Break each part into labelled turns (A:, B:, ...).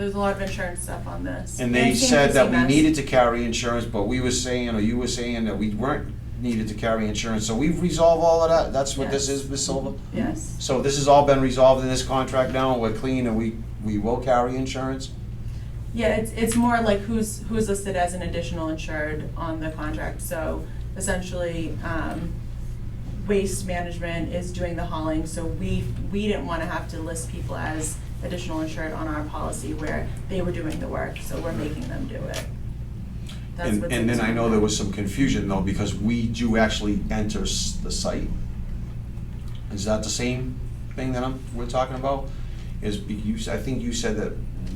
A: There's a lot of insurance stuff on this.
B: And they
A: it came
B: said
A: from
B: that we
A: CMS.
B: needed to carry insurance, but we were saying, or you were saying that we weren't needed to carry insurance, so we've resolved all of that, that's what this
A: Yes.
B: is, Ms. Silva?
A: Yes,
B: So this has all been resolved in this contract now, we're clean and we, we will carry insurance?
A: yeah, it's, it's more like who's, who's listed as an additional insured on the contract, so essentially, um, Waste Management is doing the hauling, so we, we didn't wanna have to list people as additional insured on our policy where they were doing the work, so we're making them do it. That's
B: And,
A: what's
B: and
A: in
B: then I
A: this
B: know there
A: contract.
B: was some confusion though, because we do actually enter s- the site. Is that the same thing that I'm, we're talking about? Is, be- you, s- I think you said that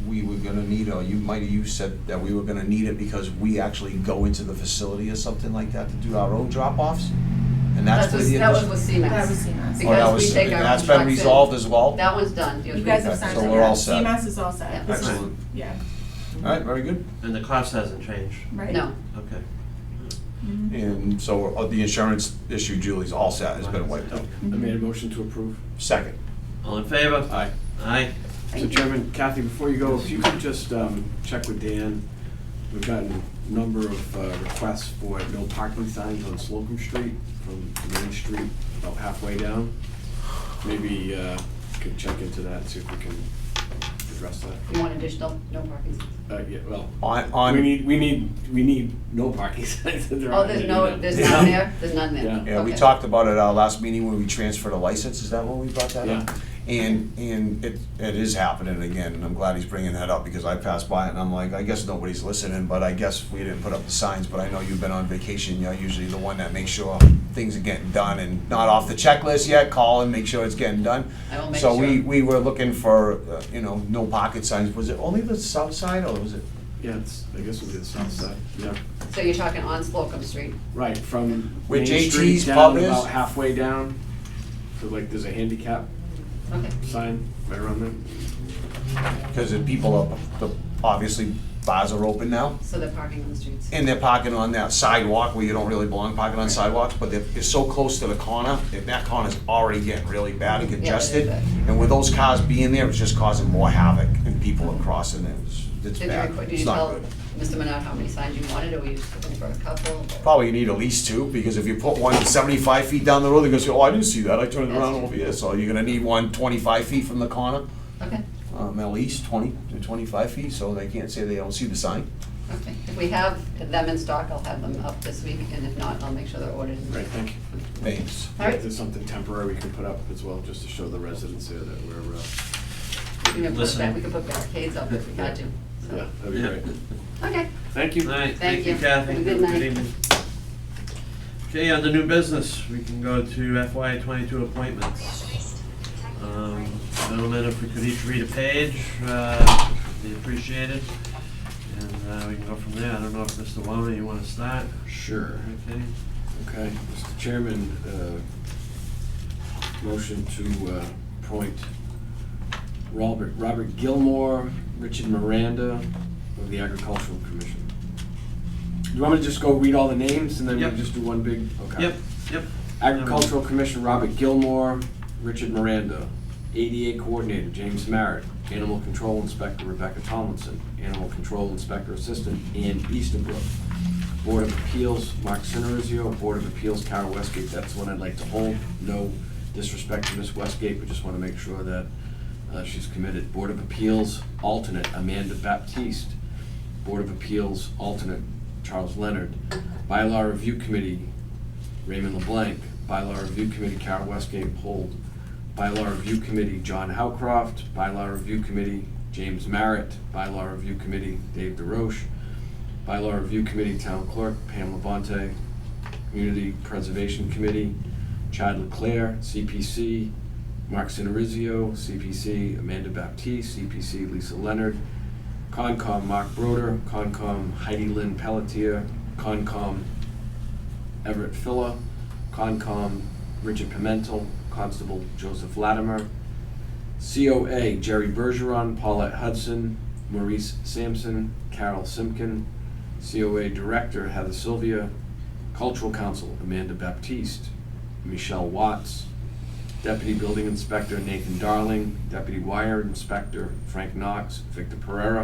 B: we were gonna need, or you might have, you said that we were gonna need it because we actually go into the facility or something like that to do our own drop-offs? And that's
C: That
B: where
C: was,
B: the.
C: that was
B: addition-
C: with
A: That was
C: CMAS.
A: CMAS.
B: Oh, that
C: because we
B: was-
C: take our own
B: That's
C: trucks
B: been
C: in.
B: resolved as well?
C: That one's done. It
A: You
C: was
A: guys have
B: Okay,
A: signed
B: so
A: it,
B: we're
A: yeah.
B: all set.
A: CMAS is all set. This is-
D: Excellent.
A: Yeah,
B: Alright, very good.
D: And the cost hasn't changed,
E: Mm-hmm.
A: right?
C: No,
D: okay.
A: Mhm.
B: And so uh, the insurance issue, Julie's all set, has been wiped out.
E: Oh,
C: Mm-hmm.
E: I made a motion to approve.
B: Second.
D: All in favor?
B: Aye.
D: Aye.
E: So Chairman, Kathy, before you go, if you could just um, check with Dan, we've gotten a number of uh, requests for no parking signs on Slocum Street from Main Street about halfway down. Maybe uh, could check into that and see if we can address that.
C: you want additional, no parking.
E: Uh, Yeah, well,
B: On,
E: we
B: on,
E: need, we need, we need no parking signs. that there
C: Oh,
E: aren't
C: there's
E: any
C: no,
E: now.
C: there's
E: Yeah.
C: none there, there's none
E: Yeah.
C: there.
B: yeah, we
C: Okay.
B: talked about it at our last meeting when we transferred a license, is that when we brought that up? And, and it, it is happening again, and I'm glad he's bringing that up, because I passed by it and I'm like, I guess nobody's listening, but I guess we didn't put up the signs, but I know you've been on vacation, you're usually the one that makes sure things are getting done and not off the checklist yet, call and make sure it's getting done.
C: I will make
B: So we,
C: sure.
B: we were looking for, uh, you know, no pocket signs, was it only the south side, or was it?
E: Yeah, it's, I guess we did the south side, yeah.
C: So you're talking on Slocum Street.
E: Right, from
B: Where
E: Main
B: JT's
E: Street
B: pub
E: down,
B: is?
E: about halfway down, so like there's a handicap
C: Okay.
E: sign right around there.
B: Because the people are, the, obviously bars are open now,
C: So they're parking on the streets.
B: and they're parking on that sidewalk where you don't really belong parking on sidewalks, but they're, they're so close to the corner, and that corner's already getting really bad and congested.
C: bad.
B: And with those cars being there, it's just causing more havoc, and people are crossing, it was, it's
C: Did you,
B: bad,
C: record- did
B: it's
C: you
B: not
C: tell
B: good.
C: Mr. Minot how many signs you wanted, or were you just looking for a couple?
B: Probably you need at least two, because if you put one seventy-five feet down the road, they're gonna say, oh, I didn't see that, I turned
C: That's
B: around
C: true.
B: over here, so you're gonna need one twenty-five feet from the corner,
C: Okay,
B: um, at least twenty to twenty-five feet, so they can't say they don't see the sign.
C: okay. If we have them in stock, I'll have them up this week, and if not, I'll make sure they're ordered.
E: Right, thank you.
B: Thanks.
C: All right.
E: If there's something temporary we can put up as well, just to show the residents there that we're, uh,
C: We can put,
D: Listen.
C: ba- we can put barricades up if we had to. so.
E: yeah, that'd be great.
C: Okay.
E: Thank you.
D: All right,
C: Thank
D: thank you
C: you.
D: Kathy.
C: Good night.
D: evening. Okay, under new business, we can go to FY twenty-two appointments. Um, Gentlemen, if we could each read a page, uh, it'd be appreciated. And uh, we can go from there. I don't know if Mr. Wallner, you want to start?
E: Sure.
D: Okay.
E: Okay, Mr. Chairman, uh, motion to uh, appoint Robert, Robert Gilmore, Richard Miranda of the Agricultural Commission. Do you want me to just go read all the names and then
D: Yep.
E: we just do one big? Okay.
D: Yep, yep.
E: Agricultural Commission, Robert Gilmore, Richard Miranda. ADA Coordinator, James Merritt. Animal Control Inspector, Rebecca Tomlinson. Animal Control Inspector Assistant, Ann Easterbrook. Board of Appeals, Mark Cinerizio. Board of Appeals, Kara Westgate. That's one I'd like to hold. No disrespect to Miss Westgate, but just want to make sure that uh, she's committed. Board of Appeals, alternate, Amanda Baptiste. Board of Appeals, alternate, Charles Leonard. Bylaw Review Committee, Raymond LeBlanc, Bylaw Review Committee, Kara Westgate, Hold. Bylaw Review Committee, John Howcroft, Bylaw Review Committee, James Merritt, Bylaw Review Committee, Dave DeRoche, Bylaw Review Committee, Town Clerk, Pam Labonte, Community Preservation Committee, Chad Leclerc, CPC, Mark Cinerizio, CPC, Amanda Baptiste, CPC, Lisa Leonard, Concom, Mark Broder, Concom, Heidi Lynn Pelletier, Concom, Everett Phila, Concom Richard Pimentel, Constable Joseph Latimer, COA Jerry Bergeron, Paulette Hudson, Maurice Sampson, Carol Simkin, COA Director Heather Sylvia, Cultural Council Amanda Baptiste, Michelle Watts, Deputy Building Inspector Nathan Darling, Deputy Wire Inspector Frank Knox, Victor Pereira,